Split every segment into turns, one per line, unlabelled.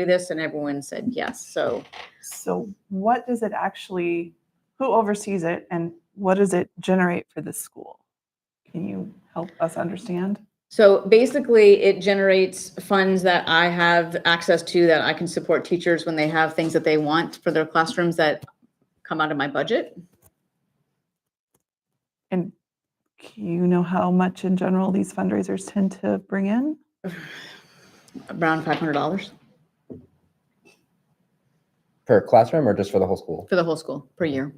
do this? And everyone said yes. So
So what does it actually, who oversees it and what does it generate for the school? Can you help us understand?
So basically, it generates funds that I have access to that I can support teachers when they have things that they want for their classrooms that come out of my budget.
And do you know how much in general these fundraisers tend to bring in?
Around five hundred dollars
Per classroom or just for the whole school?
for the whole school per year.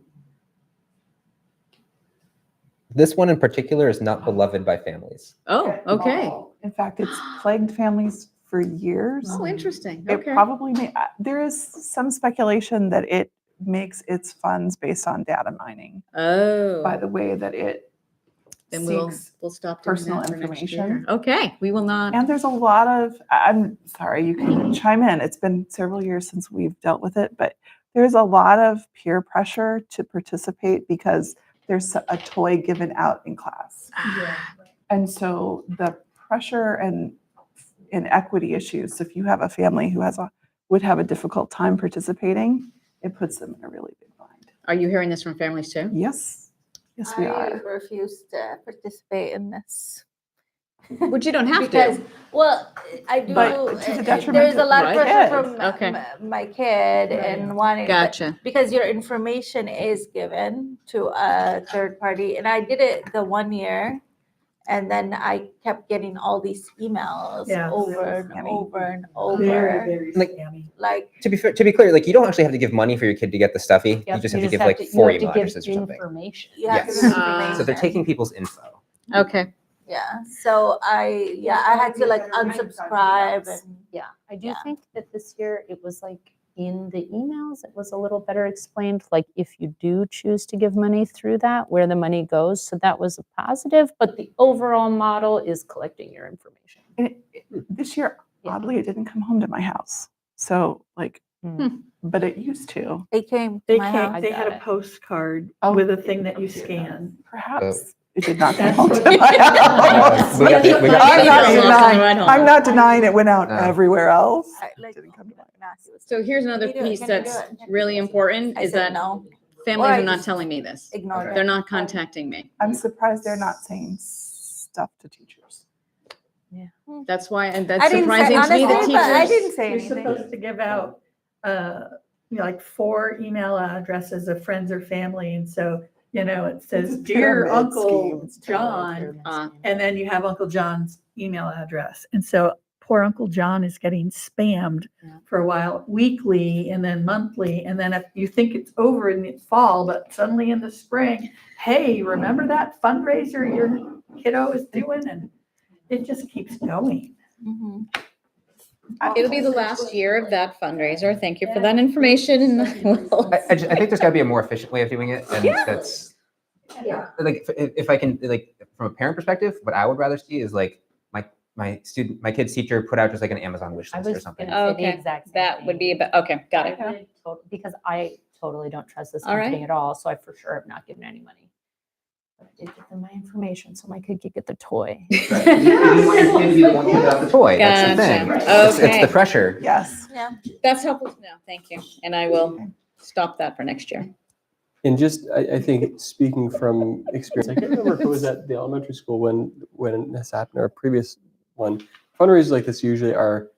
This one in particular is not beloved by families.
Oh, okay.
In fact, it's plagued families for years.
Oh, interesting.
It
Okay.
probably may, uh, there is some speculation that it makes its funds based on data mining by
Oh,
the way that it
then we'll,
seeks
we'll stop doing
personal
that for next year.
information.
Okay, we will not.
And there's a lot of, I- I'm sorry, you can chime in. It's been several years since we've dealt with it, but there's a lot of peer pressure to participate because there's a toy given out in class. And so the pressure and inequity issues, if you have a family who has a, would have a difficult time participating, it puts them in a really big bind.
Are you hearing this from families too?
Yes, yes, we
I
are.
refuse to participate in this.
But you don't have
because,
to.
well, I do.
But to the
uh, uh,
detriment
there is a
of
lot
my
of pressure
kid.
from
Okay.
m- my kid and wanting. but-
Gotcha.
Because your information is given to a third party, and I did it the one year, and then I kept getting all these emails
Yeah.
over and
Scammy.
over and
Very,
over,
very
Like-
scammy.
like.
To be fair, to be clear, like you don't actually have to give money for your kid to get the stuffy. you just have to give like four email addresses or something.
You have to
Yes.
give
Ah.
So they're
information.
taking people's info.
Okay.
Yeah, so I, yeah, I had to like unsubscribe and.
Yeah, I do
Yeah.
think that this year it was like in the emails, it was a little better explained, like if you do choose to give money through that, where the money goes. So that was a positive, but the overall model is collecting your information.
And it- it-
Hmm.
This year,
Yeah.
oddly, it didn't come home to my house. So like,
Hmm.
but it used to.
They came. to
They
my
came,
house.
they had
got
a
it.
postcard
Oh.
with a thing that you scan.
Perhaps it did not come
That's
home
what-
to my house.
We got the- we got
I'm
the-
not
Lost on the
denying-
ride home.
I'm not denying it went out
No.
everywhere else.
I, like,
Didn't come to mind.
nah, he was-
So here's another
Can you do it?
piece
Can you do
that's
it? Can you
really
do it?
important
I
is
said
that
no,
families
Or I
are not
just-
telling me this.
ignored
They're
it.
not contacting me.
I'm surprised they're not saying stuff to teachers.
Hmm.
That's why, and that's
I didn't say,
surprising to me, the
honestly, but I
teachers.
didn't say
You're
anything.
supposed to give out, uh, you know, like four email addresses of friends or family. And so, you know, it says,
It's a
dear
pyramid scheme.
Uncle
It's
John.
Uh,
And then you have Uncle John's email address. And so poor Uncle John is getting spammed
Yeah.
for a while, weekly and then monthly. And then if you think it's over in the fall, but suddenly in the spring, hey, remember that fundraiser your kiddo is doing? And it just keeps going.
Mhm.
It'll be the last year of that fundraiser. Thank you for that information. and we'll-
I, I, ju- I think there's got to be a more efficient way of doing it, and
Yeah.
that's
Yeah.
like if, if I can like from a parent perspective, what I would rather see is like my my student my kid's teacher put out just like an Amazon wish
I
list or
was
something.
gonna say
Oh, Okay,
the exact same
That would
thing.
be, about okay, got it.
I would tot- Because I totally don't trust this
All right.
company at all, so I for sure have not given any money. But I did give them my information so my kid could get the toy.
You want your kid to be the one without the toy. That's the thing.
Gotcha.
It's, it's
Okay.
the pressure.
Yes.
Yeah.
That's helpful to know. Thank you. And I will stop that for next year.
And just, I, I think, speaking from experience, I can't remember if it was at the elementary school when when this happened or a previous one. Fundraisers like this usually are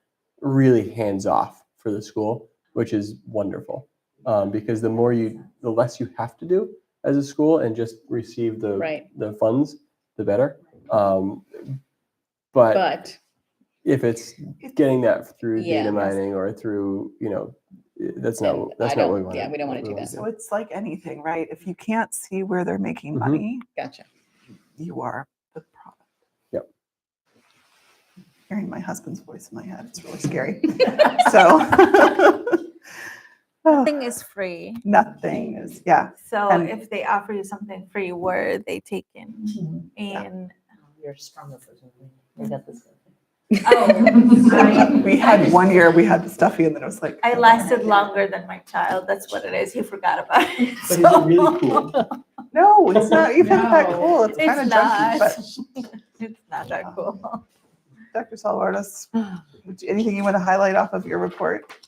really hands off for the school, which is wonderful um, because the more you, the less you have to do as a school and just receive the
Right.
the funds, the better. Um, but,
But
if it's getting that through
Yeah.
data mining or through, you know, i- that's not
And
what- that's
I
not
don't-
what we want.
yeah, we don't wanna do that.
So it's like anything, right? If you can't see where they're making
Mhm.
Mm-hmm.
money,
gotcha.
you are the product.
Yep.
Hearing my husband's voice in my head, it's really scary. so Oh,
Nothing is free.
nothing is, yeah.
So
And-
if they offer you something free, were they taken?
Mm-hmm.
And,
You're stronger for I got this.
oh, I-
We had one year, we had the stuffy, and then it was like,
I lasted longer than my child. That's what it is. He forgot about it.
But is it really cool?
no, it's not even that
No.
cool. It's
It's
kind of junky,
not.
but
It's not that cool.
Dr. Salvardis, would you- anything you want to highlight off of your report?